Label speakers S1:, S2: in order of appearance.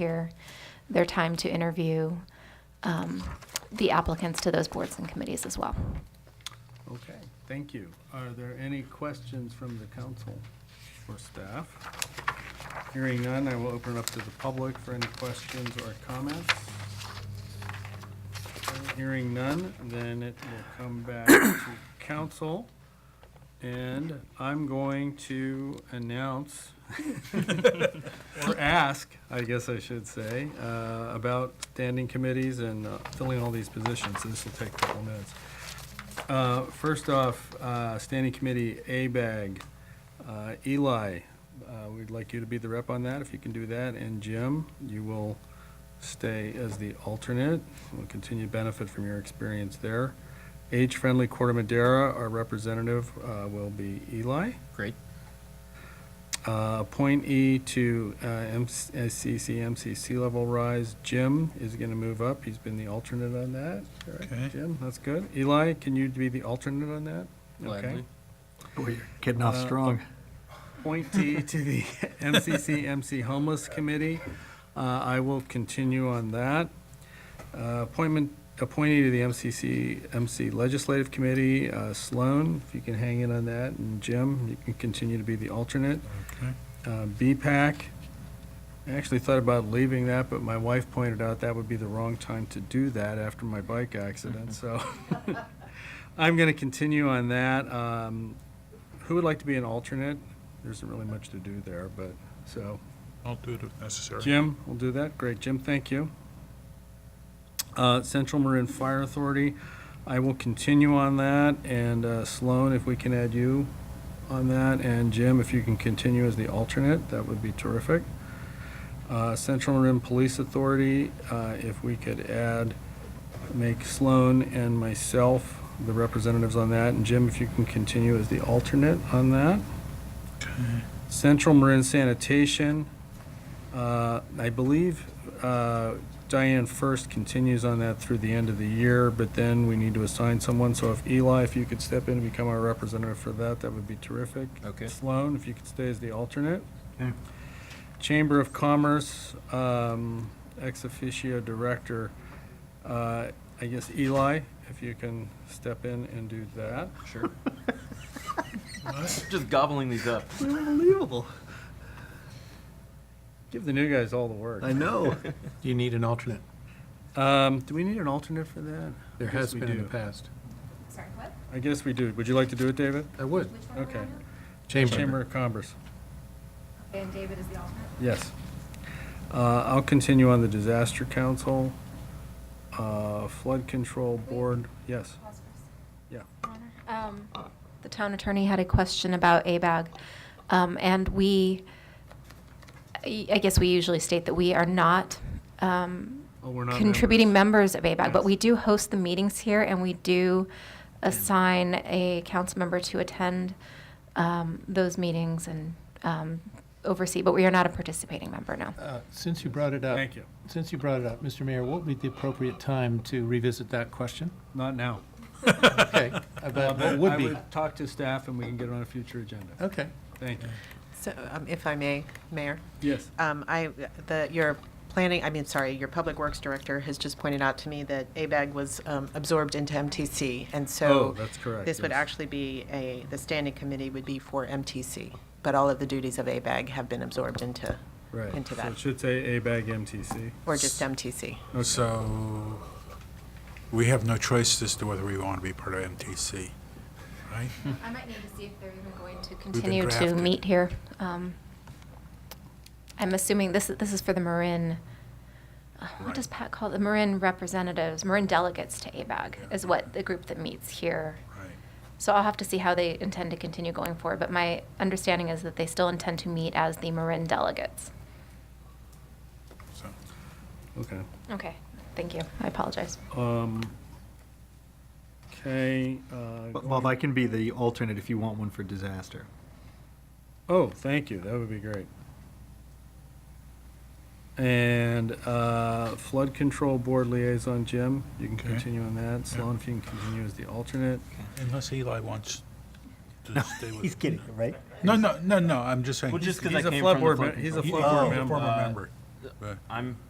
S1: here, their time to interview um, the applicants to those boards and committees as well.
S2: Okay, thank you. Are there any questions from the council or staff? Hearing none, I will open it up to the public for any questions or comments. Hearing none, then it will come back to council. And I'm going to announce, or ask, I guess I should say, uh, about standing committees and uh, filling all these positions. So This will take a couple minutes. Uh, First off, uh, Standing Committee A-BAG, uh, Eli, uh, we'd like you to be the rep on that, if you can do that, and Jim, you will stay as the alternate, we'll continue to benefit from your experience there. Age-Friendly Corte Madera, our representative uh, will be Eli.
S3: Great.
S2: Uh, Appointee to uh, MCC, MCC level rise, Jim is going to move up. He's been the alternate on that. correct,
S3: Okay.
S2: Jim, that's good. Eli, can you be the alternate on that? Okay.
S3: Gladly.
S4: Boy, you're getting off
S2: Uh,
S4: strong.
S2: Appointee to the MCC, MC Homeless Committee, Uh, I will continue on that. Uh, Appointment, appointee to the MCC, MC Legislative Committee, uh, Sloan, if you can hang in on that, and Jim, you can continue to be the alternate. Uh, BPAC, I actually thought about leaving that, but my wife pointed out that would be the wrong time to do that after my bike accident, so I'm going to continue on that. Um, Who would like to be an alternate? There isn't really much to do there, but, so,
S5: I'll do it if necessary.
S2: Jim will do that. Great, Jim, thank you. Uh, Central Marin Fire Authority, I will continue on that, and uh, Sloan, if we can add you on that, and Jim, if you can continue as the alternate, that would be terrific. Uh, Central Marin Police Authority, uh, if we could add, make Sloan and myself the representatives on that, and Jim, if you can continue as the alternate on that. Central Marin Sanitation, uh, I believe uh, Diane First continues on that through the end of the year, but then we need to assign someone. So if Eli, if you could step in and become our representative for that, that would be terrific.
S3: Okay.
S2: Sloan, if you could stay as the alternate.
S4: Okay.
S2: Chamber of Commerce, um, ex officio director, uh, I guess Eli, if you can step in and do that.
S3: Sure. Just gobbling these up.
S4: Unbelievable.
S2: Give the new guys all the work.
S4: I know.
S5: You need an alternate.
S2: Um, do we need an alternate for that?
S5: There
S2: I guess
S5: has
S2: we
S5: been in the
S2: do.
S5: past.
S1: Sorry, what?
S2: I guess we do. Would you like to do it, David?
S5: I would.
S2: Okay. Chamber
S5: Chamber.
S2: of Commerce,
S1: And David is the alternate?
S2: yes. Uh, I'll continue on the Disaster Council, uh, Flood Control Board, yes. Yeah.
S1: Um, The town attorney had a question about ABAG, um, and we, I I guess we usually state that we are not um,
S2: Oh, we're not
S1: contributing members of ABAG, but
S2: Yes.
S1: we do host the meetings here, and we do assign a council member to attend um, those meetings and um, oversee, but we are not a participating member, no.
S6: Uh, Since you brought it up.
S2: Thank you.
S6: Since you brought it up, Mr. Mayor, what would be the appropriate time to revisit that question?
S2: Not now.
S6: Okay, about
S2: Uh,
S6: what would
S2: I
S6: be?
S2: Talk to staff and we can get it on a future agenda.
S6: Okay.
S2: Thank you.
S7: So, um, if I may, Mayor,
S2: Yes.
S7: um, I, the, your planning, I mean, sorry, your Public Works Director has just pointed out to me that ABAG was um, absorbed into MTC, and
S2: Oh,
S7: so
S2: that's correct.
S7: this would
S2: yes.
S7: actually be a, the standing committee would be for MTC, but all of the duties of ABAG have been absorbed into,
S2: Right.
S7: into
S2: So it
S7: that,
S2: should say A-BAG MTC.
S7: or just MTC.
S5: So we have no choice as to whether we want to be part of MTC, right?
S1: I might need to see if they're even going to
S5: been
S1: continue to
S5: drafted.
S1: meet here. Um, I'm assuming this, this is for the Marin, uh, what
S5: Right.
S1: does Pat call it? The Marin representatives, Marin delegates to ABAG
S5: Yeah.
S1: is what the group that meets here.
S5: Right.
S1: So I'll have to see how they intend to continue going forward, but my understanding is that they still intend to meet as the Marin delegates.
S5: So
S2: Okay.
S1: Okay, thank you. I apologize.
S2: Um, Okay. uh,
S4: Bob, I can be the alternate if you want one for disaster.
S2: Oh, thank you. That would be great. And uh, Flood Control Board Liaison, Jim, you can
S5: Okay.
S2: continue on that. Sloan, if you can continue as the alternate.
S5: Unless Eli wants to stay with.
S4: right?
S5: No, no, no, no, I'm just saying.
S3: Well, just 'cause
S2: He's
S3: I
S2: a
S3: came
S2: flood
S3: from the
S2: board
S3: flood
S2: mem- he's a
S5: He-
S2: flood
S5: he's a
S2: board member.
S5: Oh, Former member. Right.
S3: I'm,